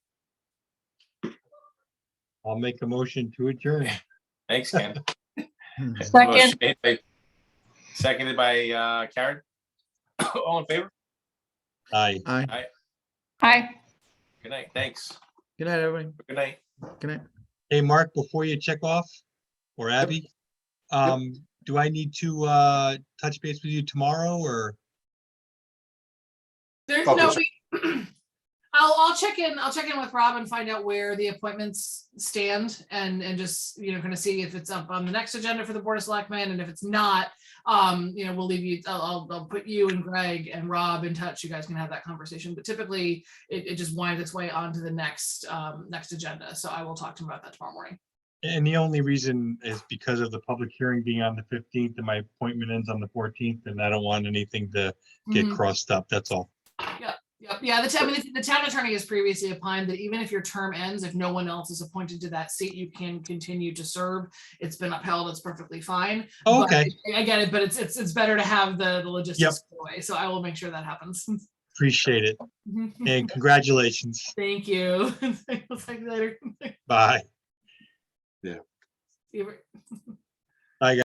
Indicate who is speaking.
Speaker 1: I'll make a motion to adjourn.
Speaker 2: Thanks, Ken.
Speaker 3: Second,
Speaker 2: Hmm. Motion made by- Seconded by uh, Karen. All in favor?
Speaker 1: Aye.
Speaker 4: Aye.
Speaker 3: aye.
Speaker 2: Good night. Thanks.
Speaker 4: Good night, everyone.
Speaker 2: Good night.
Speaker 4: Good night.
Speaker 1: Hey, Mark, before you check off, or Abby, um, do I need to, uh, touch base with you tomorrow or?
Speaker 5: There's
Speaker 2: Probably
Speaker 5: no, we- I'll, I'll check in, I'll check in with Rob and find out where the appointments stand and, and just, you know, kind of see if it's up on the next agenda for the Board of Selectmen, and if it's not, um, you know, we'll leave you, I'll, I'll, I'll put you and Greg and Rob in touch, you guys can have that conversation, but typically it, it just winds its way onto the next, um, next agenda, so I will talk to him about that tomorrow morning.
Speaker 1: And the only reason is because of the public hearing being on the fifteenth and my appointment ends on the fourteenth and I don't want anything to get
Speaker 5: Mhm.
Speaker 1: crossed up. That's all.
Speaker 5: Yep, yeah, the town, I mean, the town attorney has previously opined that even if your term ends, if no one else is appointed to that seat, you can continue to serve. It's been upheld, it's perfectly fine.
Speaker 1: Oh,
Speaker 5: But
Speaker 1: Okay,
Speaker 5: I get it, but it's, it's, it's better to have the, the logistics away, so I will make sure that happens.
Speaker 1: appreciate it. And congratulations.
Speaker 5: Thank you. We'll talk later.
Speaker 1: Bye.
Speaker 5: See you.